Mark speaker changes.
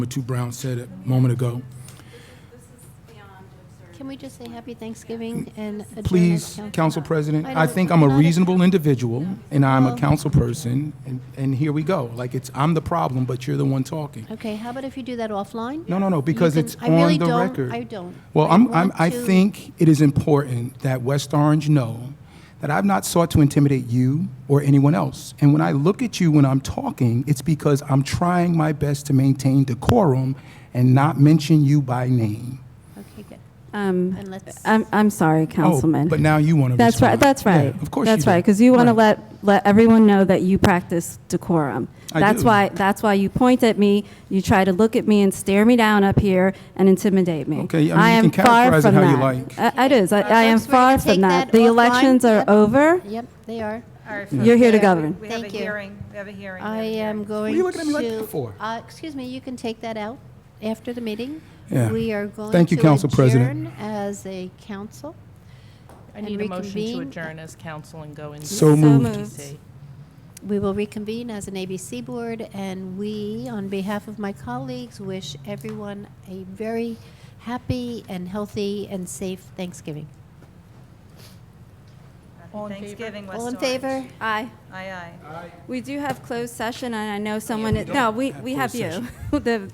Speaker 1: what you Brown said a moment ago.
Speaker 2: Can we just say happy Thanksgiving and adjourn? as
Speaker 1: Please, Council President, I think I'm a
Speaker 2: don't-
Speaker 1: reasonable individual, and I'm a
Speaker 2: Well-
Speaker 1: council person, and, and here we go. Like, it's, I'm the problem, but you're the one talking.
Speaker 2: Okay, how about if you do that offline?
Speaker 1: No, no, no, because
Speaker 2: can-
Speaker 1: it's
Speaker 2: I really
Speaker 1: on the
Speaker 2: don't-
Speaker 1: record.
Speaker 2: I don't.
Speaker 1: Well,
Speaker 2: I
Speaker 1: I'm, I'm,
Speaker 2: want
Speaker 1: I
Speaker 2: to-
Speaker 1: think it is important that West Orange know that I've not sought to intimidate you or anyone else. And when I look at you when I'm talking, it's because I'm trying my best to maintain decorum and not mention you by name.
Speaker 2: Okay, good.
Speaker 3: Um,
Speaker 2: And let's-
Speaker 3: I'm, I'm sorry,
Speaker 1: Oh,
Speaker 3: Councilman.
Speaker 1: But now you want to
Speaker 3: That's right,
Speaker 1: respond.
Speaker 3: that's right.
Speaker 1: Yeah, Of course
Speaker 3: That's
Speaker 1: do.
Speaker 3: right, because you want to
Speaker 1: Right.
Speaker 3: let, let everyone know that you practice decorum.
Speaker 1: I
Speaker 3: That's
Speaker 1: do.
Speaker 3: why, that's why you point at me, you try to look at me and stare me down up here and intimidate me.
Speaker 1: Okay, I mean, you
Speaker 3: am
Speaker 1: can
Speaker 3: far
Speaker 1: characterize it
Speaker 3: from
Speaker 1: how you
Speaker 3: that.
Speaker 1: like.
Speaker 3: I- It is, I I am
Speaker 2: Folks, we're gonna
Speaker 3: far from
Speaker 2: take
Speaker 3: that.
Speaker 2: that
Speaker 3: The
Speaker 2: offline.
Speaker 3: elections are
Speaker 2: Yep.
Speaker 3: over.
Speaker 2: Yep, they are.
Speaker 4: All right,
Speaker 3: You're here to
Speaker 4: folks, we have-
Speaker 3: govern.
Speaker 4: We have a
Speaker 2: Thank you.
Speaker 4: hearing, we have a hearing. we have
Speaker 2: I
Speaker 4: a
Speaker 2: am
Speaker 4: hearing.
Speaker 2: going to.
Speaker 1: are you looking at me like that for?
Speaker 2: Uh, Excuse me, you can take that out after the meeting.
Speaker 1: Yeah.
Speaker 2: We are going to.
Speaker 1: Thank you, Council President.
Speaker 2: adjourn As a council.
Speaker 5: I
Speaker 2: and
Speaker 5: need a motion to
Speaker 2: reconvene.
Speaker 5: adjourn as council and go into.
Speaker 1: So moved.
Speaker 5: DC.
Speaker 2: We will reconvene as an ABC board, and we, on behalf of my colleagues, wish everyone a very happy and healthy and safe Thanksgiving.
Speaker 4: Happy
Speaker 5: All in favor?
Speaker 4: Thanksgiving, West
Speaker 2: All in
Speaker 4: Orange.
Speaker 2: favor?
Speaker 3: Aye.
Speaker 4: Aye, aye.
Speaker 3: We do have closed session, and I know someone, no, we, we have you. The